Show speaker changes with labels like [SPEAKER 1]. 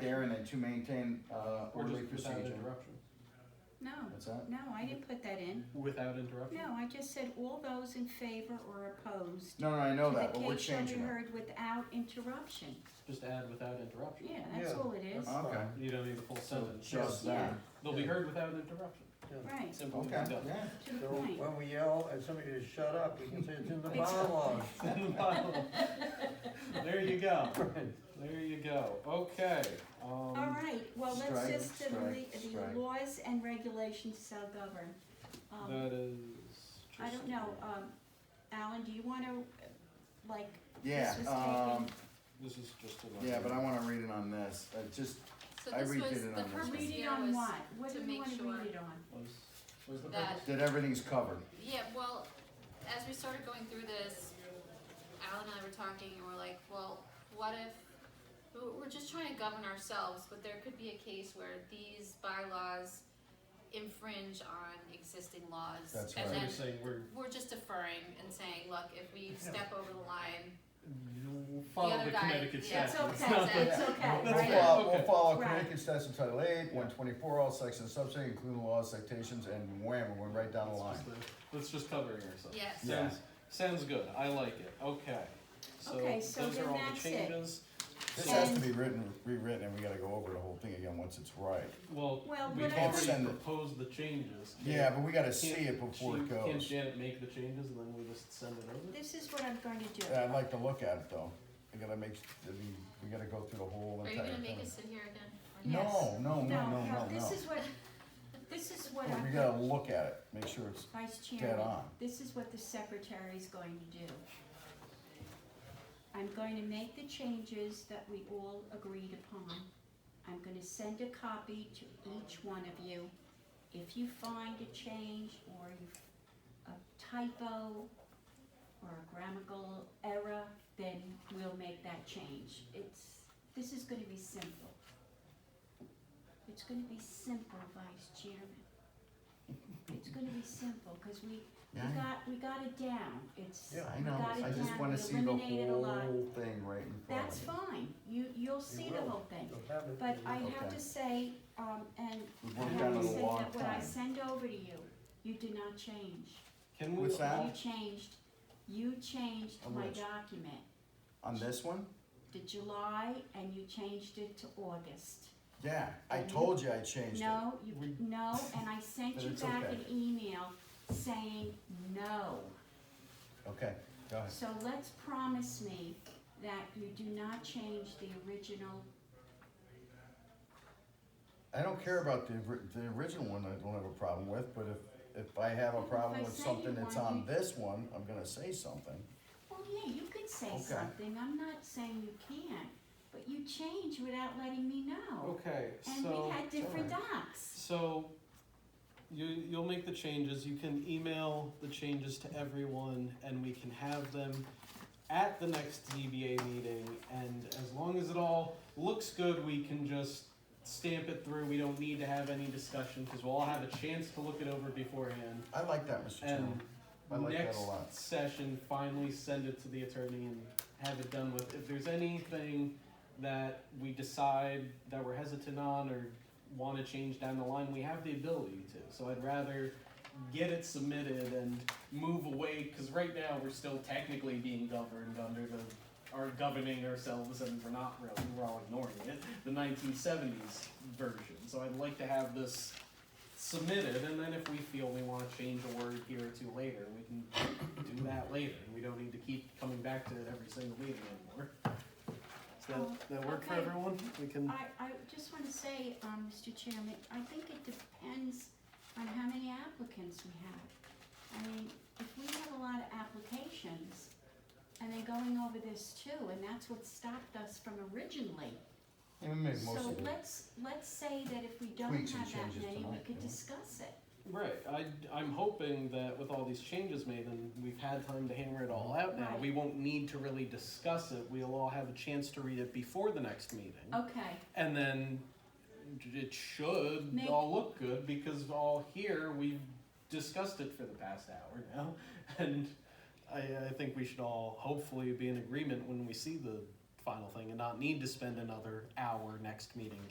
[SPEAKER 1] there and then to maintain, uh,
[SPEAKER 2] Or
[SPEAKER 1] orderly
[SPEAKER 2] just without
[SPEAKER 1] procedure.
[SPEAKER 2] interruption.
[SPEAKER 3] No,
[SPEAKER 1] What's that?
[SPEAKER 3] no, I didn't put that in.
[SPEAKER 2] Without interruption?
[SPEAKER 3] No, I just said all those in favor or opposed.
[SPEAKER 1] No, no, I know
[SPEAKER 3] to the
[SPEAKER 1] that, but we're
[SPEAKER 3] case shall be
[SPEAKER 1] changing it.
[SPEAKER 3] heard without interruption.
[SPEAKER 2] Just add without interruption.
[SPEAKER 3] Yeah, that's all it is.
[SPEAKER 1] Uh, Okay.
[SPEAKER 2] fine. You don't need the full
[SPEAKER 4] So
[SPEAKER 2] sentence.
[SPEAKER 1] Just
[SPEAKER 3] Yeah.
[SPEAKER 1] that,
[SPEAKER 2] They'll be heard without interruption.
[SPEAKER 3] Right,
[SPEAKER 2] Simple
[SPEAKER 1] okay,
[SPEAKER 2] as done.
[SPEAKER 1] yeah,
[SPEAKER 3] to the
[SPEAKER 4] So
[SPEAKER 3] point.
[SPEAKER 4] when we yell at somebody to shut up, we can say it's in the
[SPEAKER 3] It's-
[SPEAKER 4] bylaws.
[SPEAKER 2] In the Bible. There you go. There you go. Okay.
[SPEAKER 3] All
[SPEAKER 2] Um,
[SPEAKER 3] right, well,
[SPEAKER 1] Strike,
[SPEAKER 3] let's just, the,
[SPEAKER 1] strike,
[SPEAKER 3] the
[SPEAKER 1] strike.
[SPEAKER 3] laws and regulations shall govern. Um,
[SPEAKER 2] that is.
[SPEAKER 3] I don't
[SPEAKER 2] just-
[SPEAKER 3] know, um, Alan, do you wanna, uh, like,
[SPEAKER 1] yeah,
[SPEAKER 3] This was
[SPEAKER 1] um,
[SPEAKER 2] This is just a.
[SPEAKER 1] yeah, but I wanna read it on this, uh, just,
[SPEAKER 5] So
[SPEAKER 1] I
[SPEAKER 5] this
[SPEAKER 1] redid
[SPEAKER 5] was,
[SPEAKER 1] it
[SPEAKER 5] the
[SPEAKER 1] on this one.
[SPEAKER 5] purpose
[SPEAKER 3] read it
[SPEAKER 5] here
[SPEAKER 3] on
[SPEAKER 5] was,
[SPEAKER 3] what? What
[SPEAKER 5] to
[SPEAKER 3] do you
[SPEAKER 5] make
[SPEAKER 3] wanna
[SPEAKER 5] sure-
[SPEAKER 3] read it on?
[SPEAKER 2] Was, was the
[SPEAKER 5] That-
[SPEAKER 2] purpose?
[SPEAKER 1] that everything's covered.
[SPEAKER 5] yeah, well, as we started going through this, Al and I were talking and we're like, well, what if, we- we're just trying to govern ourselves, but there could be a case where these bylaws infringe on existing laws.
[SPEAKER 1] That's right.
[SPEAKER 5] And
[SPEAKER 2] So
[SPEAKER 5] then
[SPEAKER 2] you're saying we're,
[SPEAKER 5] we're just deferring and saying, look, if we step over the line,
[SPEAKER 2] you follow
[SPEAKER 5] other
[SPEAKER 2] the
[SPEAKER 5] guy-
[SPEAKER 2] Connecticut
[SPEAKER 5] yeah,
[SPEAKER 2] statute.
[SPEAKER 3] It's
[SPEAKER 5] That's
[SPEAKER 3] okay,
[SPEAKER 5] not-
[SPEAKER 3] it's okay,
[SPEAKER 2] That's
[SPEAKER 3] right?
[SPEAKER 2] fine.
[SPEAKER 1] follow, we'll
[SPEAKER 2] Okay.
[SPEAKER 1] follow
[SPEAKER 3] Right.
[SPEAKER 1] Connecticut Statute Title Eight, one twenty-four, all sections, subsections, including laws, citations, and wham, we went right down the line.
[SPEAKER 2] Let's just, uh, Let's just covering ourselves.
[SPEAKER 5] Yes.
[SPEAKER 1] Yeah.
[SPEAKER 2] Sounds, sounds good, I like it, okay. So
[SPEAKER 3] Okay, so
[SPEAKER 2] those
[SPEAKER 3] then
[SPEAKER 2] are all the
[SPEAKER 3] that's it.
[SPEAKER 2] changes.
[SPEAKER 1] This
[SPEAKER 2] So-
[SPEAKER 1] has to be written, rewritten, and we gotta go over the whole thing again once it's right.
[SPEAKER 2] Well,
[SPEAKER 3] Well,
[SPEAKER 2] we've
[SPEAKER 3] what
[SPEAKER 1] would-
[SPEAKER 3] I
[SPEAKER 2] already
[SPEAKER 1] Send it.
[SPEAKER 2] proposed the changes.
[SPEAKER 1] Yeah, but we gotta
[SPEAKER 2] Can't-
[SPEAKER 1] see it before it
[SPEAKER 2] she- Can't
[SPEAKER 1] goes.
[SPEAKER 2] Janet make the changes and then we just send it over?
[SPEAKER 3] This is what I'm going to do.
[SPEAKER 1] Yeah, I'd like to look at it though, I gotta make, I mean, we gotta go through the whole
[SPEAKER 5] are you
[SPEAKER 1] entire
[SPEAKER 5] gonna
[SPEAKER 1] thing.
[SPEAKER 5] make us sit here again?
[SPEAKER 3] Yeah.
[SPEAKER 5] Or not?
[SPEAKER 1] No, no, no, no, no, no.
[SPEAKER 3] This is what, this is what
[SPEAKER 1] Well,
[SPEAKER 3] I'm.
[SPEAKER 1] We gotta look at it, make sure it's,
[SPEAKER 3] Vice
[SPEAKER 1] Dead
[SPEAKER 3] Chairman,
[SPEAKER 1] on.
[SPEAKER 3] this is what the secretary is going to do. I'm going to make the changes that we all agreed upon. I'm gonna send a copy to each one of you. If you find a change or you, a typo or a grammatical error, then we'll make that change. It's, this is gonna be simple. It's gonna be simple, Vice Chairman. It's gonna be simple, cause we, we
[SPEAKER 1] Yeah.
[SPEAKER 3] got, we got it down. It's, we
[SPEAKER 4] Yeah,
[SPEAKER 1] I know,
[SPEAKER 3] got it
[SPEAKER 1] I just
[SPEAKER 3] down.
[SPEAKER 1] wanna
[SPEAKER 3] We
[SPEAKER 1] see the
[SPEAKER 3] eliminated a lot.
[SPEAKER 1] whole thing right in front
[SPEAKER 3] That's
[SPEAKER 1] of me.
[SPEAKER 3] fine. You, you'll see the
[SPEAKER 4] will.
[SPEAKER 3] whole thing.
[SPEAKER 4] You'll have it.
[SPEAKER 3] But I have
[SPEAKER 1] Okay.
[SPEAKER 3] to say, um, and
[SPEAKER 1] We've
[SPEAKER 3] I
[SPEAKER 1] worked
[SPEAKER 3] have
[SPEAKER 1] on
[SPEAKER 3] to
[SPEAKER 1] it a
[SPEAKER 3] say
[SPEAKER 1] long
[SPEAKER 3] that what I
[SPEAKER 1] time.
[SPEAKER 3] send over to you, you did not change.
[SPEAKER 2] Can we?
[SPEAKER 1] What's that?
[SPEAKER 3] You changed, you changed
[SPEAKER 1] On
[SPEAKER 3] my
[SPEAKER 1] which?
[SPEAKER 3] document
[SPEAKER 1] On this one?
[SPEAKER 3] to July and you changed it to August.
[SPEAKER 1] Yeah, I
[SPEAKER 3] And you-
[SPEAKER 1] told you I changed it.
[SPEAKER 3] No, you,
[SPEAKER 2] We-
[SPEAKER 3] no, and I sent
[SPEAKER 1] But
[SPEAKER 3] you
[SPEAKER 1] it's
[SPEAKER 3] back
[SPEAKER 1] okay.
[SPEAKER 3] an email saying no.
[SPEAKER 1] Okay, go ahead.
[SPEAKER 3] So let's promise me that you do not change the original
[SPEAKER 1] I don't care about the, ori- the original one, I don't have a problem with, but if, if I have a
[SPEAKER 3] Well, if
[SPEAKER 1] problem
[SPEAKER 3] I
[SPEAKER 1] with
[SPEAKER 3] say
[SPEAKER 1] something
[SPEAKER 3] you
[SPEAKER 1] that's
[SPEAKER 3] want
[SPEAKER 1] on
[SPEAKER 3] me-
[SPEAKER 1] this one, I'm gonna say something.
[SPEAKER 3] Well, yeah, you could say
[SPEAKER 1] Okay.
[SPEAKER 3] something, I'm not saying you can't, but you change without letting me know.
[SPEAKER 2] Okay,
[SPEAKER 3] And we
[SPEAKER 2] so,
[SPEAKER 3] had different docs.
[SPEAKER 2] so you, you'll make the changes, you can email the changes to everyone and we can have them at the next ZBA meeting and as long as it all looks good, we can just stamp it through, we don't need to have any discussion, cause we'll all have a chance to look it over beforehand.
[SPEAKER 1] I like that, Mr.
[SPEAKER 2] And
[SPEAKER 1] Chairman. I like that
[SPEAKER 2] next
[SPEAKER 1] a lot.
[SPEAKER 2] session, finally send it to the attorney and have it done with. If there's anything that we decide that we're hesitant on or want to change down the line, we have the ability to. So I'd rather get it submitted and move away, because right now we're still technically being governed under the, are governing ourselves and we're not really, we're all ignoring it, the nineteen seventies version. So I'd like to have this submitted, and then if we feel we wanna change a word here or two later, we can do that later, and we don't need to keep coming back to it every single meeting anymore. Does that, that work for
[SPEAKER 3] Okay.
[SPEAKER 2] everyone? We can,
[SPEAKER 3] I, I just wanna say, um, Mr. Chairman, I think it depends on how many applicants we have. I mean, if we have a lot of applications, and they're going over this too, and that's what stopped us from originally.
[SPEAKER 1] Let me make most
[SPEAKER 3] So
[SPEAKER 1] of it.
[SPEAKER 3] let's, let's say that if we don't
[SPEAKER 1] Tweaks and
[SPEAKER 3] have that
[SPEAKER 1] changes
[SPEAKER 3] many, we
[SPEAKER 1] tonight,
[SPEAKER 3] could
[SPEAKER 1] yeah.
[SPEAKER 3] discuss it.
[SPEAKER 2] right, I, I'm hoping that with all these changes made, and we've had time to hammer it all out now,
[SPEAKER 3] Right.
[SPEAKER 2] we won't need to really discuss it, we'll all have a chance to read it before the next meeting.
[SPEAKER 1] Hmm.
[SPEAKER 3] Okay,
[SPEAKER 2] And then it should
[SPEAKER 3] Make-
[SPEAKER 2] all look good because all here we've discussed it for the past hour now, and I, I think we should all hopefully be in agreement when we see the final thing and not need to spend another hour next meeting